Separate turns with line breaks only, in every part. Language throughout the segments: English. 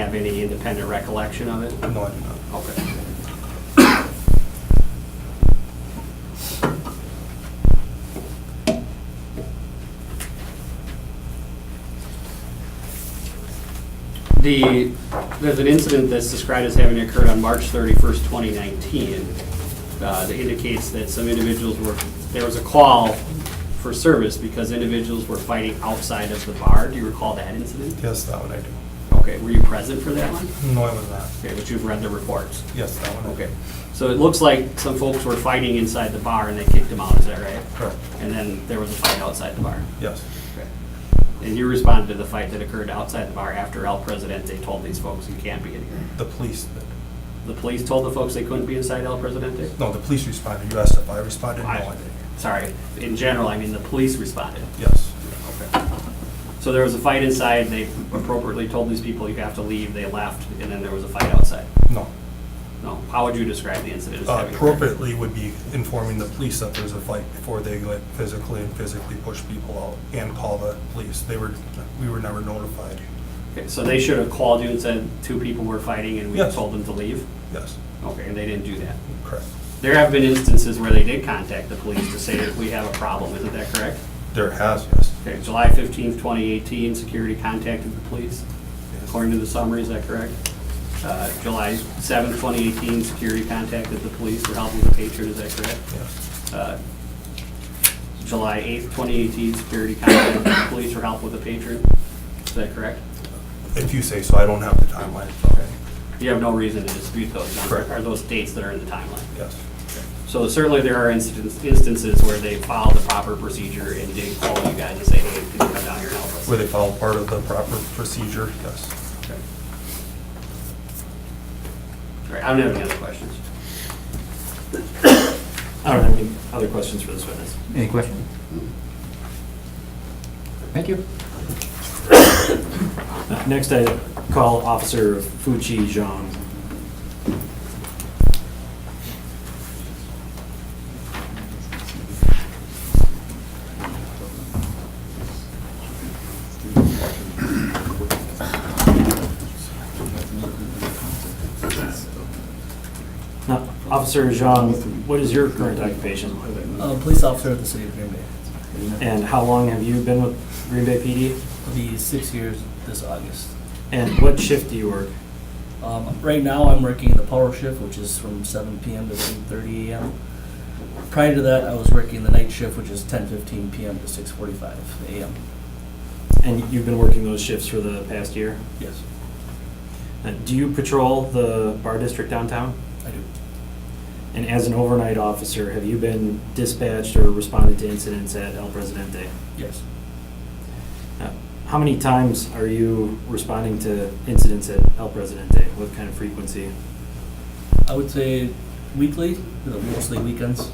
any independent recollection of it?
No, I do not.
Okay. The, there's an incident that's described as having occurred on March 31st, 2019, uh, that indicates that some individuals were, there was a call for service because individuals were fighting outside of the bar. Do you recall that incident?
Yes, that one I do.
Okay, were you present for that one?
No, I was not.
Okay, but you've read the reports?
Yes, that one I
Okay,
do.
so it looks like some folks were fighting inside the bar and they kicked them out, is that right?
Correct.
And then there was a fight outside the bar?
Yes,
Okay. And you responded to the fight that occurred outside the bar after El Presidente told these folks you can't be in here?
the police, did.
The police told the folks they couldn't be inside El Presidente?
no, the police responded. You asked if I responded. No, I
I-
didn't.
Sorry, in general, I mean, the police responded.
Yes,
Okay. So there was a fight inside, they appropriately told these people you have to leave, they left, and then there was a fight outside?
no.
No, how would you describe the incident? as
Uh,
having occurred?
Appropriately would be informing the police that there's a fight before they like physically and physically push people out and call the police. They were, we were never notified.
Okay, so they should have called you and said two people were fighting and we
Yes.
told them to leave?
Yes,
Okay, and they didn't do that.
correct.
There have been instances where they did contact the police to say that we have a problem, isn't that correct?
There has, yes.
Okay, July fifteenth, twenty eighteen, security contacted the police,
Yes.
according to the summary, is that correct? Uh, July seventh, twenty eighteen, security contacted the police for help with a patron, is that correct?
Yes,
Uh, July eighth, twenty eighteen, security contacted the police for help with a patron, is that correct?
if you say so, I don't have the timeline. Okay.
You have no reason to dispute those,
Correct.
are those dates that are in the timeline?
Yes,
So certainly there are instances, instances where they followed the proper procedure and did call you guys and say, hey, can you come down here and help us?
where they follow part of the proper procedure, yes.
Okay. All right, I don't have any other questions. I don't have any other questions for this witness.
Any questions? Thank you.
Next, I call Officer Fuji Zhang. Now, Officer Zhang, what is your current occupation?
A Uh, police officer of the city of Green Bay.
And how long have you been with Green Bay PD?
It'll be six years this August.
And what shift do you work?
Um, right now, I'm working the power shift, which is from seven PM to eight thirty AM. Prior to that, I was working the night shift, which is ten fifteen PM to six forty-five AM.
And you've been working those shifts for the past year?
Yes,
Uh, Do you patrol the bar district downtown?
I do.
And as an overnight officer, have you been dispatched or responded to incidents at El Presidente?
Yes.
Uh, How many times are you responding to incidents at El Presidente? What kind of frequency?
I would say weekly, you know, mostly weekends.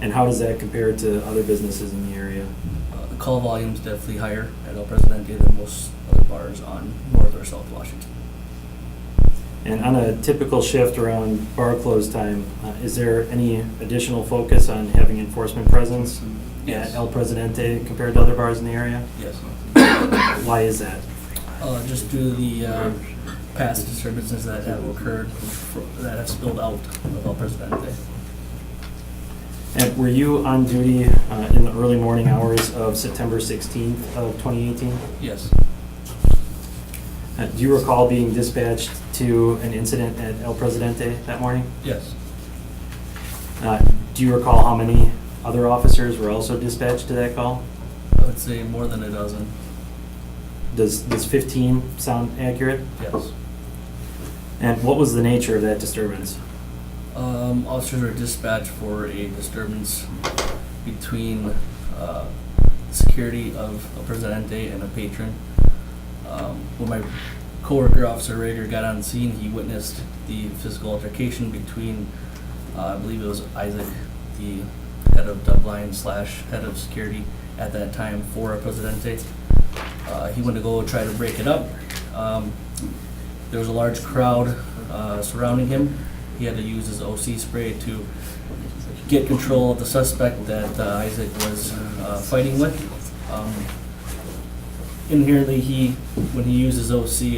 And how does that compare to other businesses in the area?
Uh, The call volume's definitely higher at El Presidente than most other bars on North or South Washington.
And on a typical shift around bar close time, uh, is there any additional focus on having enforcement presence at
Yes.
El Presidente compared to other bars in the area?
Yes.
Why is that?
Uh, just due to the uh, past disturbances that have occurred, fro- that have spilled out of El Presidente.
And were you on duty uh, in the early morning hours of September 16th of 2018?
Yes,
Uh, Do you recall being dispatched to an incident at El Presidente that morning?
yes,
Uh, Do you recall how many other officers were also dispatched to that call?
I would say more than a dozen,
Does does 15 sound accurate?
yes.
And what was the nature of that disturbance?
Um, Officers were dispatched for a disturbance between uh, security of El Presidente and a patron. Um, When my coworker, Officer Rager, got on scene, he witnessed the physical altercation between, uh, I believe it was Isaac, the head of Dubline slash head of security at that time for El Presidente. Uh, He went to go try to break it up. Um, There was a large crowd uh, surrounding him. He had to use his OC spray to get control of the suspect that uh, Isaac was uh, fighting with. Um, Inherently, he, when he used his OC,